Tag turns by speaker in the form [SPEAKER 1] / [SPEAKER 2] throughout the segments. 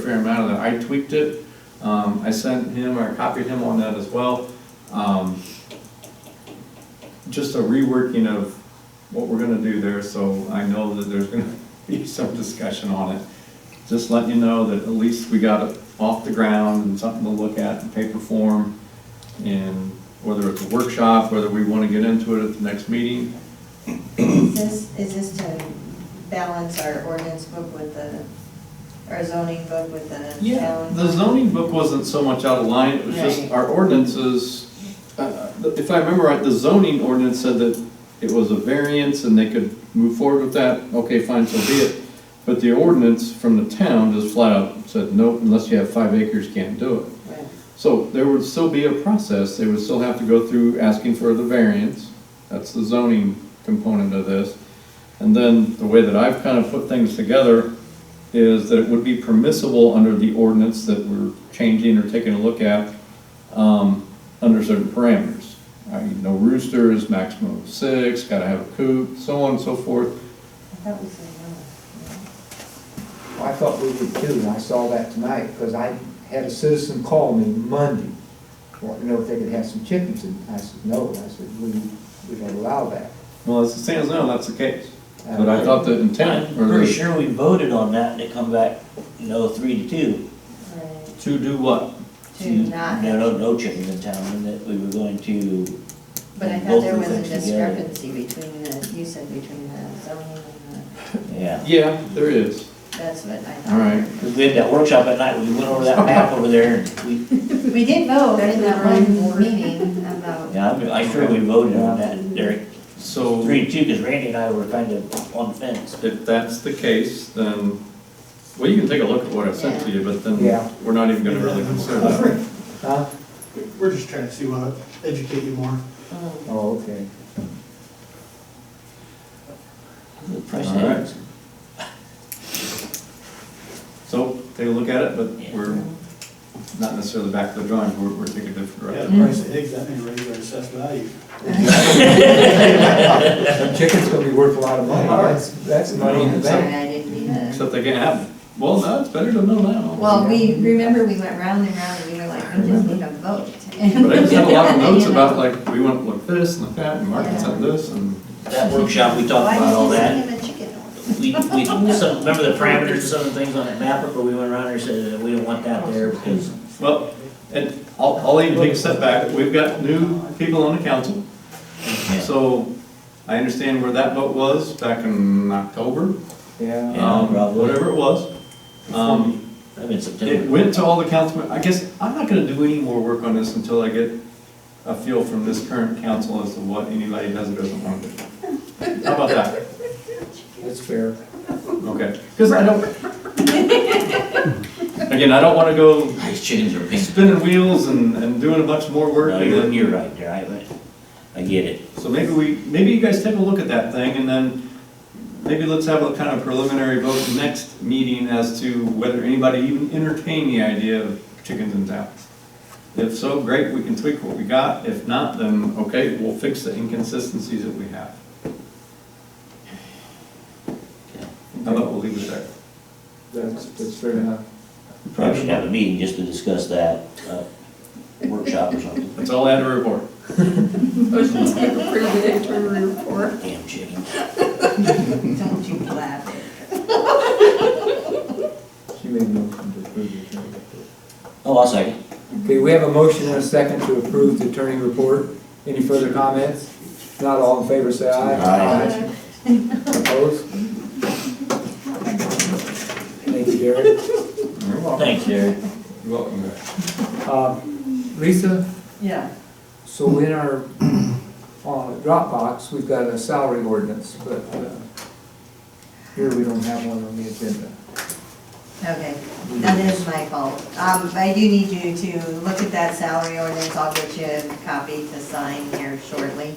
[SPEAKER 1] a fair amount of that. I tweaked it. Um, I sent him, or copied him on that as well. Um, just a reworking of what we're gonna do there, so I know that there's gonna be some discussion on it. Just letting you know that at least we got it off the ground and something to look at in paper form. And whether it's a workshop, whether we wanna get into it at the next meeting,
[SPEAKER 2] Is this, is this to balance our ordinance book with the, our zoning book with the
[SPEAKER 1] Yeah,
[SPEAKER 2] town?
[SPEAKER 1] the zoning book wasn't so much out of line, it was just
[SPEAKER 2] Right.
[SPEAKER 1] our ordinances. uh, If I remember right, the zoning ordinance said that it was a variance and they could move forward with that, okay, fine, so be it. But the ordinance from the town just flat out said, nope, unless you have five acres, can't do it.
[SPEAKER 2] Right.
[SPEAKER 1] So there would still be a process, they would still have to go through asking for the variance, that's the zoning component of this. And then the way that I've kind of put things together is that it would be permissible under the ordinance that we're changing or taking a look at, um, under certain parameters. I mean, no roosters, maximum of six, gotta have a coop, so on and so forth.
[SPEAKER 2] I thought we said no.
[SPEAKER 3] I thought we did too, and I saw that tonight, because I had a citizen call me Monday, wanting to know if they could have some chickens, and I said, no, and I said, we, we don't allow that.
[SPEAKER 1] Well, as it stands now, that's the case. But I thought the intent, or
[SPEAKER 4] I'm pretty
[SPEAKER 1] the,
[SPEAKER 4] sure we voted on that and it come back, no, three to two.
[SPEAKER 2] Right.
[SPEAKER 1] to do what?
[SPEAKER 2] To
[SPEAKER 1] Mm-hmm.
[SPEAKER 2] not,
[SPEAKER 4] No, no, no chickens in town and that we were going to,
[SPEAKER 2] but I thought
[SPEAKER 4] both
[SPEAKER 2] there
[SPEAKER 4] of
[SPEAKER 2] was a
[SPEAKER 4] things together.
[SPEAKER 2] discrepancy between the, you said between the zoning and
[SPEAKER 4] yeah.
[SPEAKER 1] Yeah, there is.
[SPEAKER 2] the, that's what I thought.
[SPEAKER 1] All right.
[SPEAKER 4] 'Cause we had that workshop at night, we went over that map over there and we,
[SPEAKER 2] We did vote in that one meeting about,
[SPEAKER 4] yeah, I'm, I'm sure we voted on that, Derek.
[SPEAKER 1] So.
[SPEAKER 4] Three to two, because Randy and I were kind of on the fence.
[SPEAKER 1] If that's the case, then, well, you can take a look at what I sent to you, but then
[SPEAKER 3] Yeah.
[SPEAKER 1] we're not even gonna really consider that.
[SPEAKER 3] Huh?
[SPEAKER 5] We're just trying to see what, educate you more.
[SPEAKER 2] mm,
[SPEAKER 3] Oh, okay.
[SPEAKER 4] The
[SPEAKER 1] All
[SPEAKER 4] precedent.
[SPEAKER 1] right. So, take a look at it, but we're not necessarily back to the drawing board, we're taking a different
[SPEAKER 5] Yeah,
[SPEAKER 1] direction.
[SPEAKER 5] the price of eggs, that thing raised our assessed value.
[SPEAKER 3] Them chickens gonna be worth a lot of money, that's, that's money in the
[SPEAKER 2] I'm sorry,
[SPEAKER 3] bank.
[SPEAKER 2] I didn't mean to.
[SPEAKER 1] Except they can't have, it. well, no, it's better to know now.
[SPEAKER 2] Well, we, remember we went round and round and we were like, we just need a vote.
[SPEAKER 1] But I just had a lot of notes
[SPEAKER 2] You know?
[SPEAKER 1] about like, we want like this and like that, and Mark had said this, and
[SPEAKER 4] That workshop, we talked about all that. We, we, some, remember the parameters and some of the things on that map before we went around there, said that we don't want that there because
[SPEAKER 1] Well, and I'll, I'll even take a step back, we've got new people on the council. So I understand where that vote was back in October,
[SPEAKER 3] Yeah,
[SPEAKER 4] Yeah,
[SPEAKER 1] um,
[SPEAKER 4] probably.
[SPEAKER 1] whatever it was. Um,
[SPEAKER 4] I've been
[SPEAKER 1] it
[SPEAKER 4] September.
[SPEAKER 1] went to all the councilmen, I guess, I'm not gonna do any more work on this until I get a feel from this current council as to what anybody does or doesn't want to do. How about that?
[SPEAKER 3] that's fair.
[SPEAKER 1] Okay, because I don't. Again, I don't wanna go
[SPEAKER 4] These chickens are pink.
[SPEAKER 1] spinning wheels and, and doing a bunch more work.
[SPEAKER 4] No,
[SPEAKER 1] and
[SPEAKER 4] you're,
[SPEAKER 1] then-
[SPEAKER 4] you're right there, I, I get it.
[SPEAKER 1] So maybe we, maybe you guys take a look at that thing and then maybe let's have a kind of preliminary vote next meeting as to whether anybody even entertained the idea of chickens in town. If so, great, we can tweak what we got. If not, then okay, we'll fix the inconsistencies that we have. How about we'll leave it there?
[SPEAKER 3] That's, that's fair enough.
[SPEAKER 4] We Probably should have a meeting just to discuss that, uh, workshop or something.
[SPEAKER 1] That's all I had to report.
[SPEAKER 6] Motion to approve the interim report.
[SPEAKER 4] Damn chickens.
[SPEAKER 2] Don't you laugh.
[SPEAKER 3] She made a motion to approve the attorney report.
[SPEAKER 4] Oh, I'll second.
[SPEAKER 3] Okay, we have a motion and a second to approve the attorney report. Any further comments? If Not all in favor, say aye.
[SPEAKER 4] Aye.
[SPEAKER 3] Opposed? Thank you, Derek.
[SPEAKER 4] Thanks, Derek.
[SPEAKER 1] You're welcome, guys.
[SPEAKER 3] Uh, Lisa,
[SPEAKER 2] Yeah.
[SPEAKER 3] so in our, on Dropbox, we've got a salary ordinance, but uh, here we don't have one on the agenda.
[SPEAKER 2] Okay, that is my fault. Um, I do need you to look at that salary ordinance, I'll get you a copy to sign here shortly.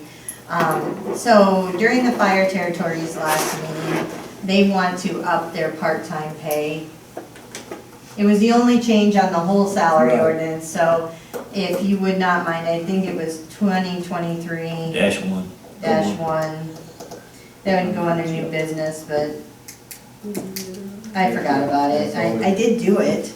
[SPEAKER 2] Um, so during the fire territories last meeting, they want to up their part-time pay. It was the only change on the whole salary
[SPEAKER 3] Right.
[SPEAKER 2] ordinance, so if you would not mind, I think it was twenty twenty-three
[SPEAKER 4] Dash one.
[SPEAKER 2] dash one. That would go under new business, but I forgot about it. I, I did do it.